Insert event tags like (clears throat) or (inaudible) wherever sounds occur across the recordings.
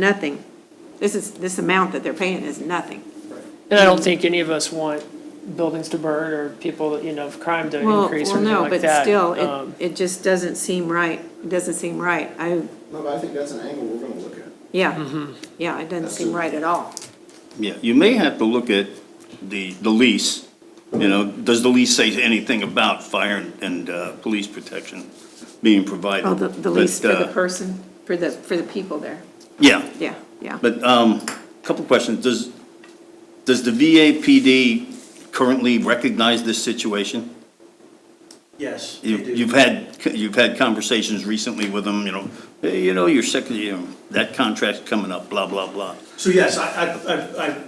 nothing. This is, this amount that they're paying is nothing. And I don't think any of us want buildings to burn or people, you know, of crime to Well, increase well, or anything no, like but that. still, it, Um, it just doesn't seem right, It doesn't seem right. I, No, but I think that's an angle we're gonna look at. Mm-hmm. yeah, yeah, it doesn't seem right at all. Yeah, you may have to look at the, the lease, you know, does the lease say anything about fire and- and, uh, police protection being provided? Oh, the, the lease for But, the uh, person, for the, for the people there. Yeah, Yeah, yeah. but, um, couple questions, does, does the VAPD currently recognize this situation? Yes, they You- do. You've had, you've had conversations recently with them, you know, hey, you know, your second, you know, that contract's coming up, blah, blah, blah. So yes, I, I- I, I,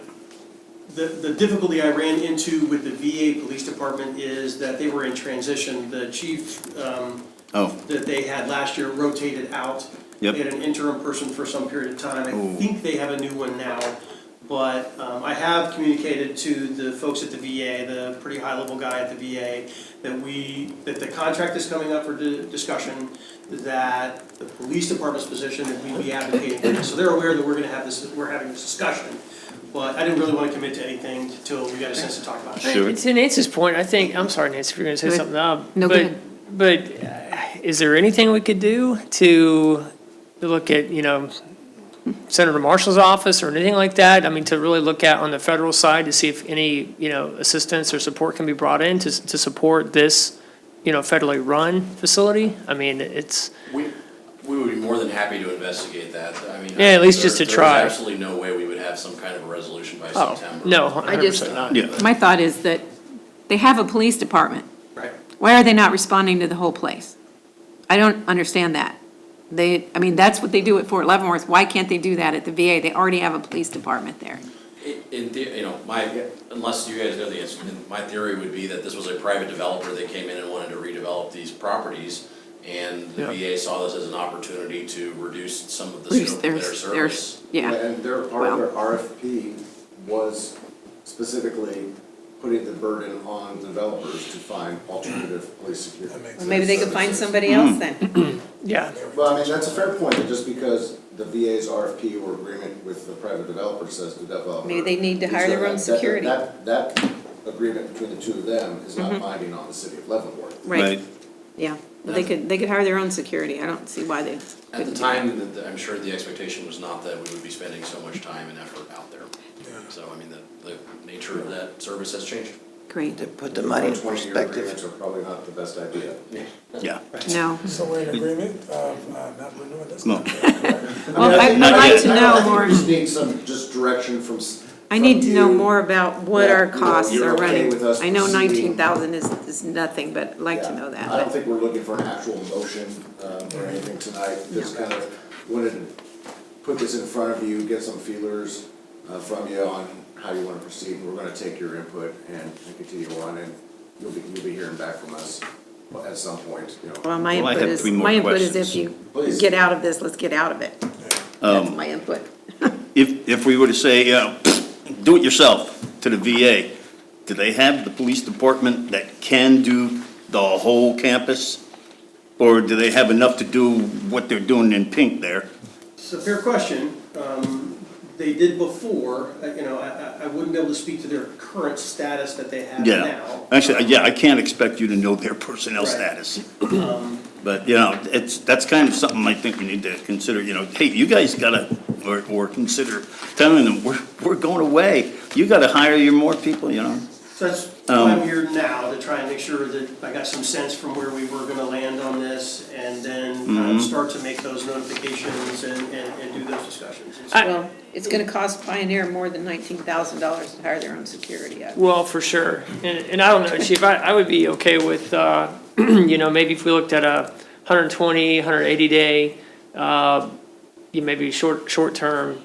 the, the difficulty I ran into with the VA Police Department is that they were in transition. The chief, um, Oh, that they had last year rotated out. Yep. They had an interim person for some period of time. Ooh. I think they have a new one now. But um, I have communicated to the folks at the VA, the pretty high-level guy at the VA, that we, that the contract is coming up for di- discussion, that the police department's position, that we be advocating for this. So they're aware that we're gonna have this, we're having this discussion. But I didn't really want to commit to anything till we got a sense to talk about it. sure. To Nancy's point, I think, I'm sorry, Nancy, if you're gonna say Go something, um, No, go but, ahead. but uh, is there anything we could do to look at, you know, Senator Marshall's office or anything like that? I mean, to really look at on the federal side to see if any, you know, assistance or support can be brought in to, to support this, you know, federally run facility? I mean, it's, We, we would be more than happy to investigate that, I mean. Yeah, at least just there- to try. There's absolutely no way we would have some kind of a resolution by oh, September. no, I hundred just- percent not. Yeah. My thought is that they have a police department. Right. Why are they not responding to the whole place? I don't understand that. They, I mean, that's what they do at Fort Leavenworth. Why can't they do that at the VA? They already have a police department there. In- In, the- you know, my, unless you guys know the answer, then my theory would be that this was a private developer that came in and wanted to redevelop these properties, and the Yeah. VA saw this as an opportunity to reduce some of the There's, scope of their there's, service. there's, yeah, And their, part of their RFP was specifically putting the burden on developers to find alternative police security. maybe they could find somebody Mm-hmm. else then. (laughs) Yeah. Well, I mean, that's a fair point, that just because the VA's RFP or agreement with the private developer says the developer. Maybe they need to hire their own That- that- security. Mm-hmm. That, that agreement between the two of them is not binding on the city of Leavenworth. Right, yeah. They could, they could hire their own security. I don't see why they At the couldn't. time, the- the- I'm sure the expectation was not that we would be spending so much time and effort out there. So, I mean, the, the nature of that service has changed. Great, to put the money in Twenty-year agreements perspective. are probably not the best idea. Yeah. no. So we're in agreement of uh, not renewing this? No. Well, I- I'd Not like yet. to I know think more, We just need some just direction from. s- I need to from know you. more about what our Yeah, you're- costs you're are okay running. with us I know proceeding. nineteen thousand is, is nothing, but I'd like to Yeah. know that. I don't think we're looking for an actual motion um, or anything tonight, just kind of wanted to put this in front of you, get some feelers uh, from you on how you want to proceed. We're going to take your input and and continue on, and you'll be, you'll be hearing back from us at some point, you know. Well, my Well, I input have is, three more my input is if questions. Um, you Please. get out of this, let's get out of it. That's my input. If, if we were to say, uh, do it yourself to the VA, do they have the police department that can do the whole campus? Or do they have enough to do what they're doing in pink there? It's a fair question. Um, They did before, uh, you know, I- I, I wouldn't be able to speak to their current status that they have Yeah, now. actually, yeah, I can't expect you to know their personnel Right. Um, status. But, you know, it's, that's kind of something I think we need to consider, you know, hey, you guys gotta, or, or consider telling them, we're, we're going away. You gotta hire your more people, you know? So that's why I'm here now, to try and make sure that I got some sense from where we were gonna land on this, and then kind of start to make those notifications and, and, and do those discussions. And so- I- Well, it's gonna cost Pioneer more than nineteen thousand dollars to hire their own security. I- Well, for sure. And, and I don't know, Chief, I, I would be okay with, uh, (clears throat) you know, maybe if we looked at a 120, 180 day, uh, you maybe short, short term,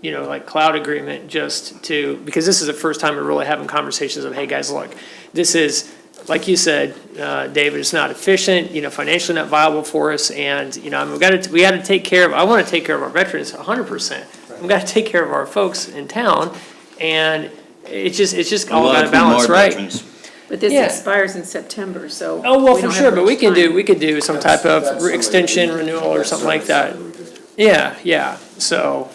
you know, like cloud agreement just to, because this is the first time we're really having conversations of, hey, guys, look, this is, like you said, uh, David, it's not efficient, you know, financially not viable for us, and, you know, I'm, we gotta, we gotta take care of, I wanna take care of our veterans hundred percent. We gotta take care of our folks in town, and it's just, it's just all about a balance, right? But this Yeah. expires in September, so. Oh, well, we for don't have sure, but much we can time. do, we could do some That's- type of that's re- something we extension, could- renewal, or that's something like that. something we could do. Yeah, yeah, so.